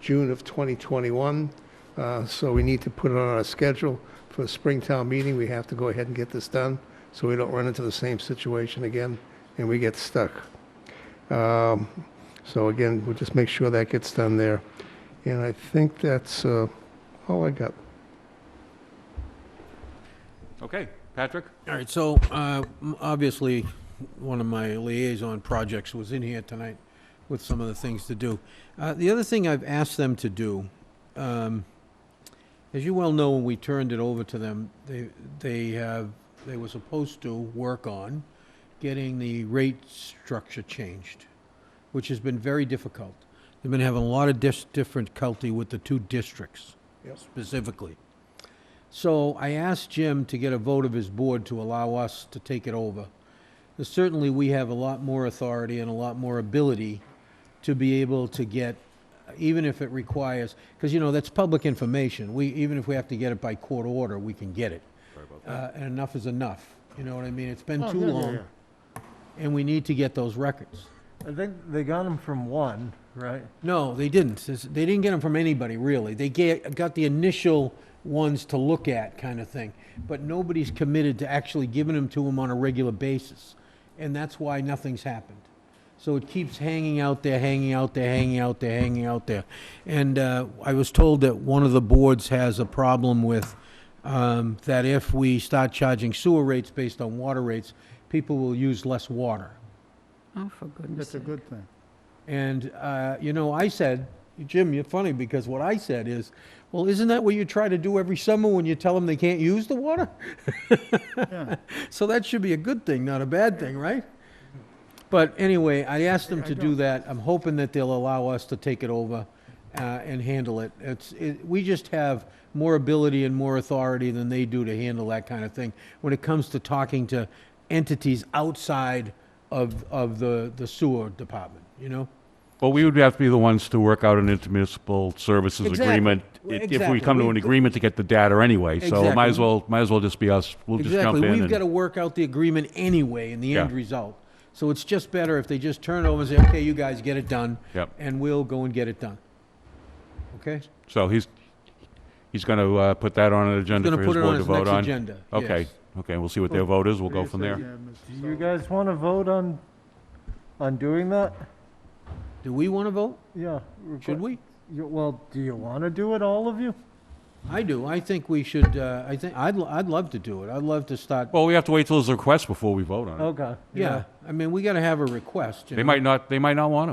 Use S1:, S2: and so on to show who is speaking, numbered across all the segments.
S1: June of 2021. Uh, So we need to put it on our schedule for the Springtown meeting. We have to go ahead and get this done so we don't run into the same situation again and we get stuck. Um, So again, we'll just make sure that gets done there. And I think that's uh, all I got.
S2: Okay, Patrick?
S3: All right, so uh, m- obviously, one of my liaison projects was in here tonight with some of the things to do. Uh, The other thing I've asked them to do, um, as you well know, when we turned it over to them, they, they have, they were supposed to work on getting the rate structure changed, which has been very difficult. They've been having a lot of dis- difficulty with the two districts specifically. So I asked Jim to get a vote of his board to allow us to take it over. And Certainly, we have a lot more authority and a lot more ability to be able to get, even if it requires, because, you know, that's public information. We, even if we have to get it by court order, we can get it. Uh, And enough is enough, you know what I mean? It's been
S4: Oh,
S3: too
S4: yeah, yeah,
S3: long, and we need to get those records.
S4: I think they got them from one, right?
S3: No, they didn't. This- They didn't get them from anybody, really. They ga- got the initial ones to look at, kind of thing. But nobody's committed to actually giving them to them on a regular basis. And that's why nothing's happened. So it keeps hanging out there, hanging out there, hanging out there, hanging out there. And uh, I was told that one of the boards has a problem with um, that if we start charging sewer rates based on water rates, people will use less water.
S5: Oh, for goodness
S4: That's a
S5: sake.
S4: good thing.
S3: And, uh, you know, I said, Jim, you're funny, because what I said is, well, isn't that what you try to do every summer when you tell them they can't use the water?
S4: Yeah.
S3: So that should be a good thing, not a bad thing, right? But anyway, I asked them to do that. I'm hoping that they'll allow us to take it over uh, and handle it. It's, it- we just have more ability and more authority than they do to handle that kind of thing when it comes to talking to entities outside of, of the the sewer department, you know?
S2: Well, we would have to be the ones to work out an intermunicipal services
S3: Exactly.
S2: agreement i-
S3: Well,
S2: if we come to
S3: exactly.
S2: an
S3: We've-
S2: agreement to get the data anyway. So it might as
S3: Exactly.
S2: well, might as well just be us. We'll just jump
S3: Exactly,
S2: in.
S3: we've
S2: and-
S3: got to work out the agreement anyway in the end
S2: Yeah.
S3: result. So it's just better if they just turn it over and say, okay, you guys get it done.
S2: Yep.
S3: And we'll go and get it done. Okay?
S2: So he's, he's going to put that on an agenda
S3: gonna
S2: for his
S3: put it on
S2: board to
S3: his
S2: vote
S3: next
S2: on?
S3: agenda,
S2: Okay,
S3: yes.
S2: okay, we'll see what their vote is, we'll go from there.
S4: Do you guys want to vote on, on doing that?
S3: Do we want to vote?
S4: Yeah.
S3: Should we?
S4: You- Well, do you want to do it, all of you?
S3: I do. I think we should, uh, I think, I'd, l- I'd love to do it. I'd love to start,
S2: Well, we have to wait till his request before we vote
S3: Oh,
S2: on it.
S4: Okay.
S3: yeah. I mean, we got to have a request. you
S2: They
S3: know?
S2: might not, they might not want to.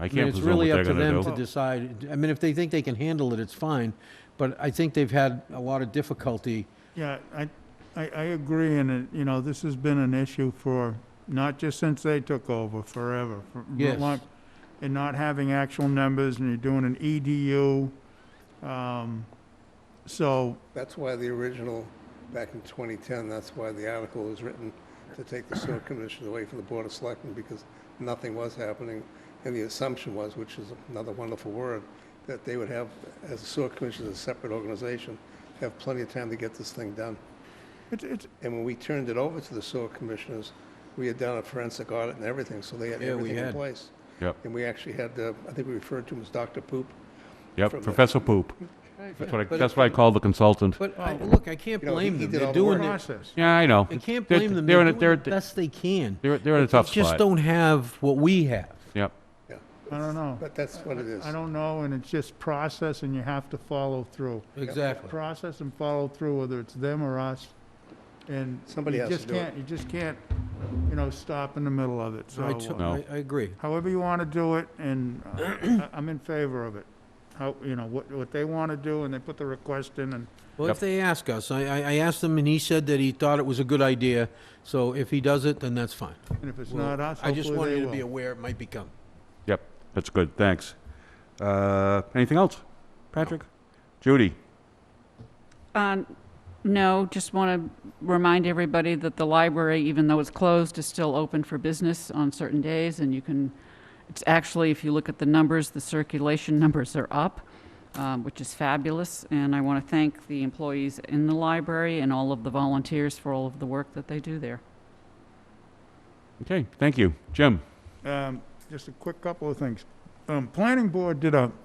S2: I
S3: I mean,
S2: can't
S3: it's
S2: presume what
S3: really
S2: they're
S3: up to them
S2: going
S3: to
S2: to do.
S3: decide. I mean, if they think they can handle it, it's fine. But I think they've had a lot of difficulty.
S6: Yeah, I, I, I agree, and, it- you know, this has been an issue for, not just since they took over, forever. for- for
S3: Yes.
S6: long- And not having actual numbers, and you're doing an EDU, um, so,
S1: That's why the original, back in 2010, that's why the article was written to take the sewer commission away from the Board of Selectmen because nothing was happening. And the assumption was, which is another wonderful word, that they would have, as a sewer commission, as a separate organization, have plenty of time to get this thing done.
S6: it's, it's,
S1: And when we turned it over to the sewer commissioners, we had done a forensic audit and everything, so they had
S3: Yeah, we
S1: everything in
S3: had.
S1: place.
S2: Yep,
S1: And we actually had, uh, I think we referred to him as Dr. Poop. from
S2: yep,
S1: the-
S2: Professor Poop. That's what I,
S3: But-
S2: that's what I call the consultant.
S3: But, I- look, I can't
S1: You know, he-
S3: blame
S1: he
S3: them.
S1: did
S3: They're
S1: all the
S3: doing
S1: work.
S3: it.
S6: process.
S2: Yeah, I know.
S3: I can't
S2: They're-
S3: blame them.
S2: They're in a,
S3: They're
S2: they're,
S3: doing the best they can.
S2: they're, they're in a
S3: They
S2: tough
S3: just
S2: spot.
S3: don't have what we have.
S2: Yep.
S1: Yeah.
S6: I don't know.
S1: But that's what it is.
S6: I don't know, and it's just process, and you have to follow through.
S3: Exactly.
S6: Process and follow through, whether it's them or us, and
S1: Somebody
S6: you
S1: has to
S6: just
S1: do it.
S6: can't, you just can't, you know, stop in the middle of it, so.
S3: I,
S6: uh,
S3: to-
S2: No.
S3: I- I agree.
S6: however you want to do it, and uh, I- I'm in favor of it. How, you know, what, what they want to do, and they put the request in, and
S3: Well,
S2: Yep.
S3: if they ask us, I, I I asked him and he said that he thought it was a good idea. So if he does it, then that's fine.
S6: and if it's
S3: Well,
S6: not us,
S3: I just wanted
S6: hopefully
S3: you to be
S6: they will.
S3: aware it might become.
S2: Yep, that's good, thanks. Uh, Anything else? Patrick? Judy?
S5: Uh, No, just want to remind everybody that the library, even though it's closed, is still open for business on certain days, and you can, it's actually, if you look at the numbers, the circulation numbers are up, um, which is fabulous, and I want to thank the employees in the library and all of the volunteers for all of the work that they do there.
S2: Okay, thank you. Jim?
S6: Um, Just a quick couple of things. Um, Planning Board did a